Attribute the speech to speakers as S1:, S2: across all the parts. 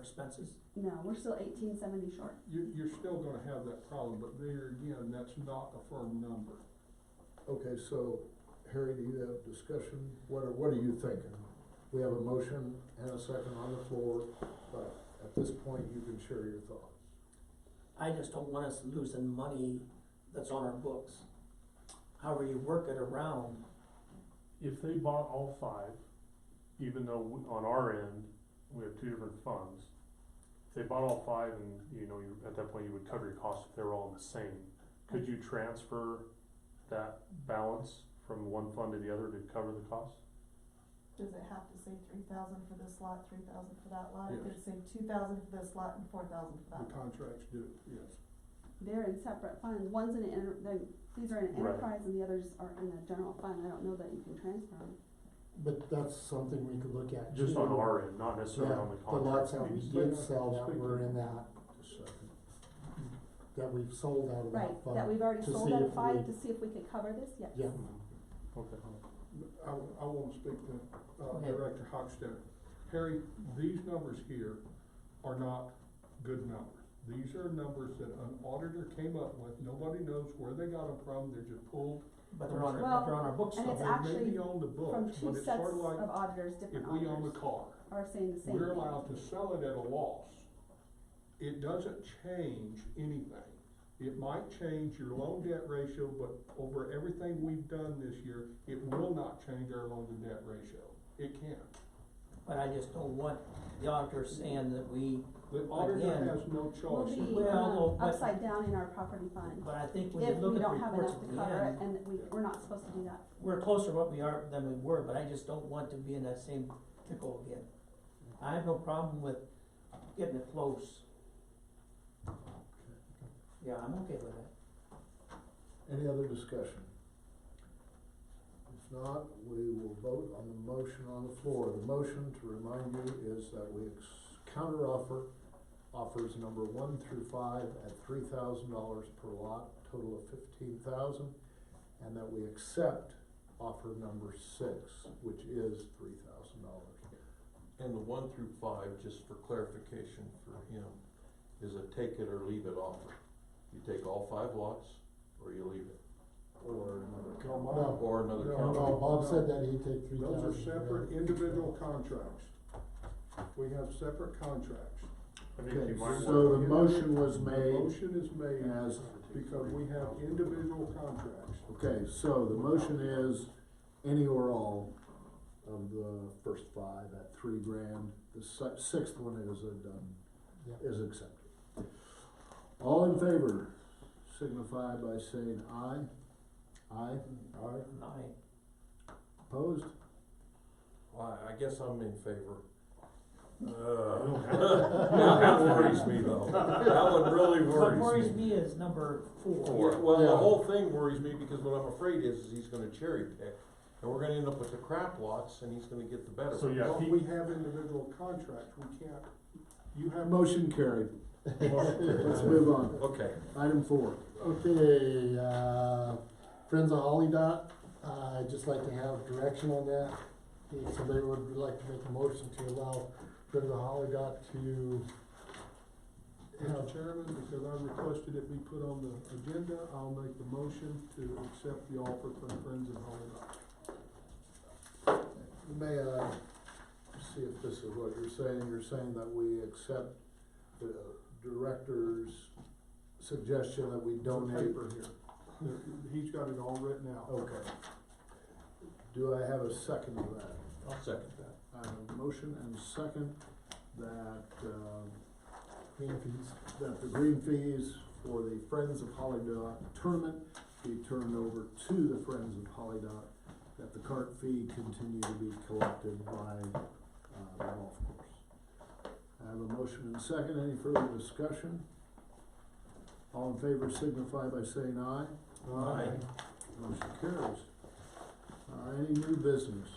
S1: expenses?
S2: No, we're still eighteen seventy short.
S3: You're, you're still gonna have that problem, but there again, that's not a firm number.
S4: Okay, so Harry, do you have discussion? What are, what are you thinking? We have a motion and a second on the floor, but at this point, you can share your thoughts.
S1: I just don't want us losing money that's on our books. However you work it around,
S5: If they bought all five, even though we- on our end, we have two different funds, if they bought all five and, you know, you, at that point you would cover your costs if they were all in the same, could you transfer that balance from one fund to the other to cover the cost?
S6: Does it have to say three thousand for this lot, three thousand for that lot?
S3: Yes.
S6: It could say two thousand for this lot and four thousand for that
S3: The
S6: lot.
S3: contracts do, yes.
S2: They're in separate funds. One's in an, enter- the- these are in
S5: Right.
S2: enterprise and the others are in the general fund. I don't know that you can transfer them.
S7: But that's something we could look at.
S5: Just on
S7: too.
S5: our end, not necessarily
S7: Yeah,
S5: on the
S7: The lots
S5: contract.
S7: that we
S5: piece.
S7: did sell that
S3: Speak to
S7: were in
S3: it.
S7: that,
S4: Just a second.
S7: that we've sold out of
S2: Right,
S7: that fund.
S2: that we've already
S7: to
S2: sold
S7: see
S2: out
S7: if
S2: of five
S7: we-
S2: to see if we could cover this, yes.
S7: Yeah,
S5: Mm-hmm. Okay.
S3: I, I wanna speak to, uh,
S7: Okay.
S3: Director Hochstetter. Harry, these numbers here are not good numbers. These are numbers that an auditor came up with, nobody knows where they got them from, they're just pulled.
S1: but they're on our,
S2: Well,
S1: but they're on our books
S2: and
S1: somewhere.
S2: it's
S3: They may
S2: actually
S3: be on the
S2: From
S3: books,
S2: two
S3: but it's
S2: sets
S3: sort of
S2: of
S3: like
S2: auditors,
S3: if
S2: different
S3: we own a
S2: auditors
S3: car.
S2: are saying the same
S3: we're
S2: thing.
S3: allowed to sell it at a loss. It doesn't change anything. It might change your loan debt ratio, but over everything we've done this year, it will not change our loan to debt ratio. It can't.
S1: But I just don't want the auditor saying that we,
S3: The auditor
S1: Again,
S3: has no
S2: We'll
S3: choice.
S2: be
S1: Well, no,
S2: um,
S1: but-
S2: upside down in our property fund
S1: but I think when you
S2: if
S1: look
S2: we
S1: at the
S2: don't have
S1: reports
S2: enough
S1: at
S2: to
S1: the
S2: cover it
S1: end,
S2: and we, we're not supposed to do that.
S1: we're closer to what we are than we were, but I just don't want to be in that same pickle again. I have no problem with getting it close. Yeah, I'm okay with that.
S4: Any other discussion? If not, we will vote on the motion on the floor. The motion, to remind you, is that we ex- counteroffer offers number one through five at three thousand dollars per lot, total of fifteen thousand, and that we accept offer number six, which is three thousand dollars.
S8: And the one through five, just for clarification for him, is a take it or leave it offer. You take all five lots, or you leave it,
S4: Or another
S3: No,
S4: company.
S3: Bob,
S7: No.
S8: or another
S3: No,
S8: county.
S7: no,
S4: uh,
S7: Bob
S3: No.
S7: said that he'd take three thousand.
S3: Those are separate individual contracts. We have separate contracts.
S5: I think
S4: Okay,
S5: you might
S4: so
S5: want,
S4: the motion was
S3: The
S4: made
S3: Motion is made
S4: as
S3: because we have individual contracts.
S4: Okay, so the motion is any or all of the first five at three grand. The si- sixth one is a done,
S7: Yeah.
S4: is accepted. All in favor, signify by saying aye. Aye,
S3: Aye.
S1: I,
S4: opposed?
S8: Well, I guess I'm in favor. Uh, That worries me though, that one really
S1: what worries
S8: worries me.
S1: me is number
S8: Four.
S1: four.
S8: Well,
S4: Yeah.
S8: the whole thing worries me because what I'm afraid is, is he's gonna cherry pick, and we're gonna end up with the crap lots, and he's gonna get the better.
S5: So,
S8: ones.
S5: Yeah,
S3: Well,
S5: he-
S3: we have individual contracts, we can't, you have.
S4: Motion carried. Let's move on.
S8: Okay.
S4: Item four.
S7: Okay, uh, Friends of Holly Dot, uh, I'd just like to have direction on that. If somebody would like to make a motion to allow Friends of Holly Dot to
S3: Mr. Chairman, because I requested it be put on the agenda, I'll make the motion to accept the offer from Friends of Holly Rock.
S4: May I see if this is what you're saying? You're saying that we accept the director's suggestion that we
S3: The
S4: donate
S3: paper here. There- He's got it all written out.
S4: Okay. Do I have a second to that?
S8: I'll second that.
S4: I have a motion and a second that, um,
S7: green fees.
S4: that the green fees for the Friends of Holly Dot tournament be turned over to the Friends of Holly Dot, that the cart fee continue to be collected by, uh, the golf course. I have a motion and a second. Any further discussion? All in favor signify by saying aye.
S8: Aye.
S4: Motion carries. Uh, any new business?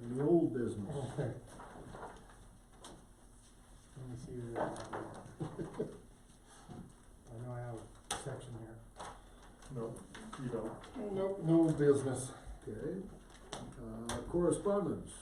S4: Any old business?
S7: Let me see where that is. I know I have a section here.
S5: no, you don't.
S7: Nope, no business.
S4: Okay, uh, Uh, correspondence.